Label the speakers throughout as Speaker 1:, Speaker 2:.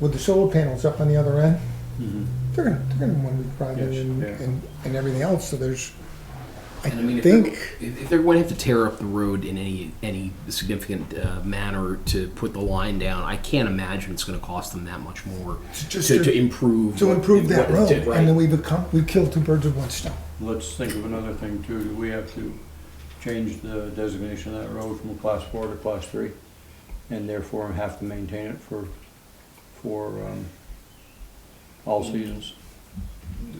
Speaker 1: with the solar panels up on the other end,
Speaker 2: Mm-hmm.
Speaker 1: they're gonna, they're gonna wanna be private
Speaker 2: Yes,
Speaker 1: and,
Speaker 2: yeah.
Speaker 1: and, and everything else, so there's, I
Speaker 3: And I mean, if
Speaker 1: think,
Speaker 3: they're, if they're going to have to tear up the road in any any significant uh, manner to put the line down, I can't imagine it's going to cost them that much more
Speaker 1: just
Speaker 3: to, to
Speaker 1: to,
Speaker 3: improve
Speaker 1: to
Speaker 3: what-
Speaker 1: improve that
Speaker 3: what-
Speaker 1: road,
Speaker 3: to- right.
Speaker 1: and then we become, we kill two birds with one stone.
Speaker 2: Let's think of another thing too, do we have to change the designation of that road from a class four to class three? And therefore have to maintain it for, for, um, all seasons?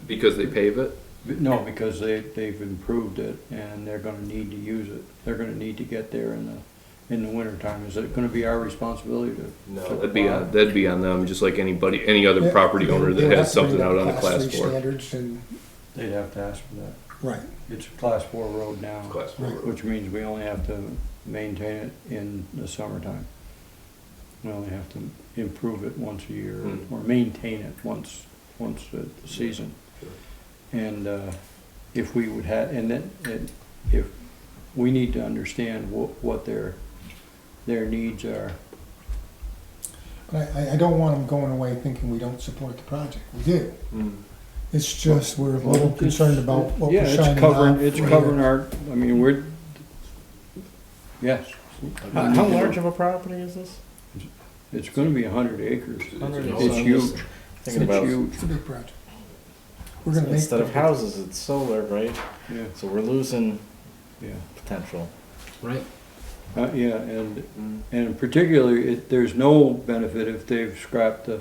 Speaker 4: Because they pave it?
Speaker 2: But No, because they, they've improved it and they're gonna need to use it, they're gonna need to get there in the, in the winter time, is it gonna be our responsibility to? to
Speaker 4: That'd be,
Speaker 2: plow?
Speaker 4: on- that'd be on them, just like anybody, any other
Speaker 1: Yeah,
Speaker 4: property
Speaker 1: they-
Speaker 4: owner
Speaker 1: they
Speaker 4: that
Speaker 1: would have
Speaker 4: has
Speaker 1: to bring
Speaker 4: something out
Speaker 1: up
Speaker 4: on a class
Speaker 1: three
Speaker 4: four.
Speaker 1: Standards and,
Speaker 2: They'd have to ask for that,
Speaker 1: right,
Speaker 2: it's a class four road now.
Speaker 4: Class four.
Speaker 1: Right.
Speaker 2: Which means we only have to maintain it in the summertime. We only have to improve it once a year,
Speaker 4: Hmm.
Speaker 2: or maintain it once, once a season. And, uh, if we would have, and then, and if, we need to understand what, what their, their needs are.
Speaker 1: but I, I don't want them going away thinking we don't support the project, we do.
Speaker 4: Mm.
Speaker 1: It's just, we're a little
Speaker 2: It's-
Speaker 1: concerned about what
Speaker 2: yeah,
Speaker 1: we're
Speaker 2: it's
Speaker 1: shining
Speaker 2: covering-
Speaker 1: out.
Speaker 2: It's
Speaker 1: for
Speaker 2: covering our, I mean, we're, yes,
Speaker 5: Uh, How, how large of a property is this?
Speaker 2: it's gonna be a hundred acres.
Speaker 5: Hundred
Speaker 2: It's huge, it's
Speaker 5: Thinking about
Speaker 2: huge,
Speaker 1: It's a big project. We're gonna make.
Speaker 5: instead of
Speaker 1: the-
Speaker 5: houses, it's solar, right?
Speaker 2: yeah,
Speaker 5: So we're losing
Speaker 2: yeah.
Speaker 5: potential.
Speaker 3: Right.
Speaker 2: Uh, yeah, and, and particularly, it, there's no benefit if they've scrapped the,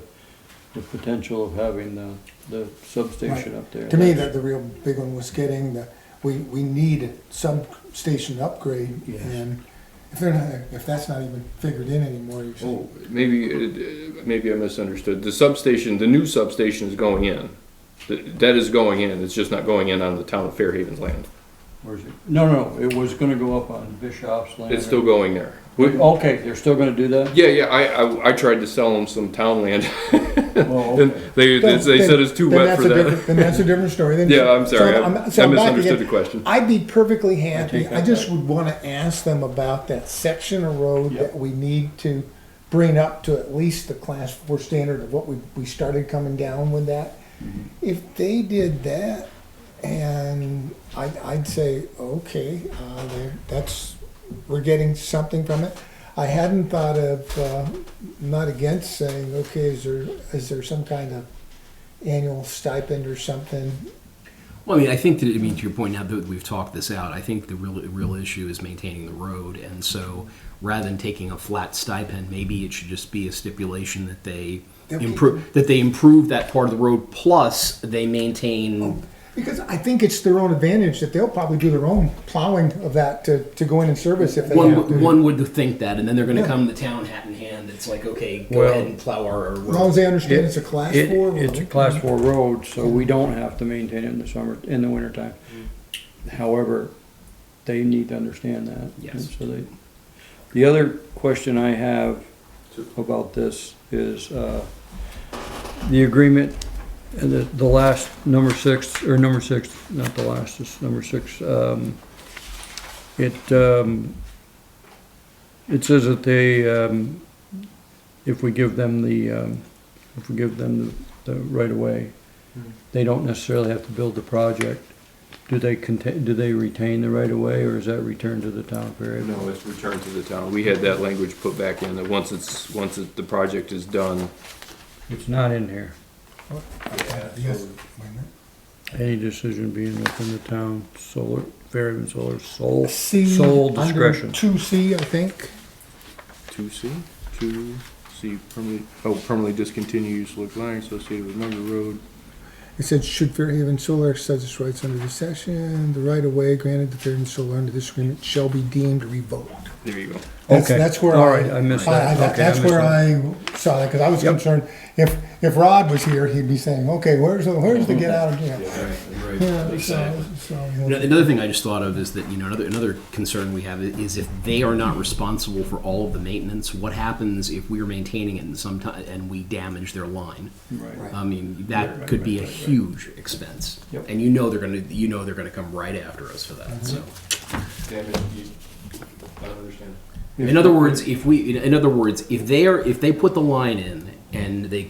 Speaker 2: the potential of having the, the substation up there.
Speaker 1: To me, that the real big one was getting the, we, we need a substation upgrade,
Speaker 2: Yes.
Speaker 1: and if they're not, if that's not even figured in anymore, you're saying,
Speaker 4: Oh, maybe, it- uh, maybe I misunderstood. The substation, the new substation is going in. Th- That is going in, it's just not going in on the town of Fairhaven's land.
Speaker 2: Where's it? No, no, it was gonna go up on Bishop's land.
Speaker 4: It's still going there. We-
Speaker 2: Okay, they're still gonna do that?
Speaker 4: Yeah, yeah, I, I, I tried to sell them some town land,
Speaker 2: Well,
Speaker 4: and
Speaker 2: okay.
Speaker 4: they, they
Speaker 1: Then-
Speaker 4: said it's too
Speaker 1: then
Speaker 4: wet
Speaker 1: that's
Speaker 4: for
Speaker 1: a
Speaker 4: that.
Speaker 1: different- Then that's a different story. Then-
Speaker 4: Yeah, I'm
Speaker 1: so
Speaker 4: sorry, I
Speaker 1: so
Speaker 4: I
Speaker 1: I'm back
Speaker 4: misunderstood
Speaker 1: again.
Speaker 4: the question.
Speaker 1: I'd be perfectly happy,
Speaker 2: take that
Speaker 1: I just
Speaker 2: back.
Speaker 1: would wanna ask them about that section of road
Speaker 2: Yep.
Speaker 1: that we need to bring up to at least the class four standard of what we, we started coming down with that.
Speaker 2: Mm-hmm.
Speaker 1: If they did that, and I'd, I'd say, okay, uh, there, that's, we're getting something from it. I hadn't thought of, uh, not against saying, okay, is there, is there some kind of annual stipend or something?
Speaker 3: Well, I mean, I think that I mean to your point. Now that we've talked this out, I think the real real issue is maintaining the road, and so rather than taking a flat stipend, maybe it should just be a stipulation that they
Speaker 1: They'll keep-
Speaker 3: improve that they improve that part of the road, plus they maintain.
Speaker 1: Oh, Because I think it's their own advantage that they'll probably do their own plowing of that to, to go in and service if they
Speaker 3: One,
Speaker 1: have to.
Speaker 3: would- one would think that, and then they're going to
Speaker 1: Yeah.
Speaker 3: come to town hat in hand. It's like, okay, go
Speaker 4: Well-
Speaker 3: ahead and plow our
Speaker 1: As long as
Speaker 3: road.
Speaker 1: they understand it's a class
Speaker 2: It-
Speaker 1: four
Speaker 2: It's a
Speaker 1: road. Mm-hmm.
Speaker 2: class four road, so we don't have to maintain it in the summer, in the wintertime.
Speaker 1: Mm-hmm.
Speaker 2: However, they need to understand that. and
Speaker 3: Yes.
Speaker 2: So they, the other question I have about this is, uh, the agreement, and the, the last, number six, or number six, not the last, it's number six, um, it, um, it says that they, um, if we give them the, um, if we give them the, the right of way,
Speaker 1: Hmm.
Speaker 2: they don't necessarily have to build the project. Do they contain, do they retain the right of way or is that returned to the town period?
Speaker 4: No, it's returned to the town. We had that language put back in, that once it's, once it- the project is done,
Speaker 2: It's not in here.
Speaker 1: Yes. Wait a minute.
Speaker 2: Any decision being within the town solar, Fairhaven Solar sole,
Speaker 1: C
Speaker 2: sole
Speaker 1: under
Speaker 2: discretion.
Speaker 1: Two C, I think.
Speaker 4: Two C, two C, permanently, oh, permanently discontinued use of line associated with member road.
Speaker 1: It said, should Fairhaven Solar exercise its rights under this section, the right of way granted to Fairhaven Solar under this agreement shall be deemed revoked.
Speaker 4: There you go.
Speaker 1: That's-
Speaker 2: Okay.
Speaker 1: That's where I.
Speaker 2: All right, I missed that.
Speaker 1: I- I-
Speaker 2: Okay, I
Speaker 1: That's
Speaker 2: missed
Speaker 1: where
Speaker 2: that.
Speaker 1: I saw that, because I was
Speaker 2: Yep.
Speaker 1: concerned, if, if Rod was here, he'd be saying, okay, where's, the where's the get out of jail? Yeah, so,
Speaker 3: Ano-
Speaker 1: so.
Speaker 3: Another thing I just thought of is that you know another another concern we have is if they are not responsible for all of the maintenance, what happens if we're maintaining it and sometime and we damage their line?
Speaker 2: Right.
Speaker 3: I mean, that
Speaker 2: Right,
Speaker 3: could
Speaker 2: right,
Speaker 3: be a
Speaker 2: right, right.
Speaker 3: huge expense,
Speaker 2: Yep.
Speaker 3: and you know they're gonna you know they're gonna come right after us for that. So,
Speaker 4: Damn it, you, I don't understand.
Speaker 3: in other words, if we in- in other words if they are if they put the line in and they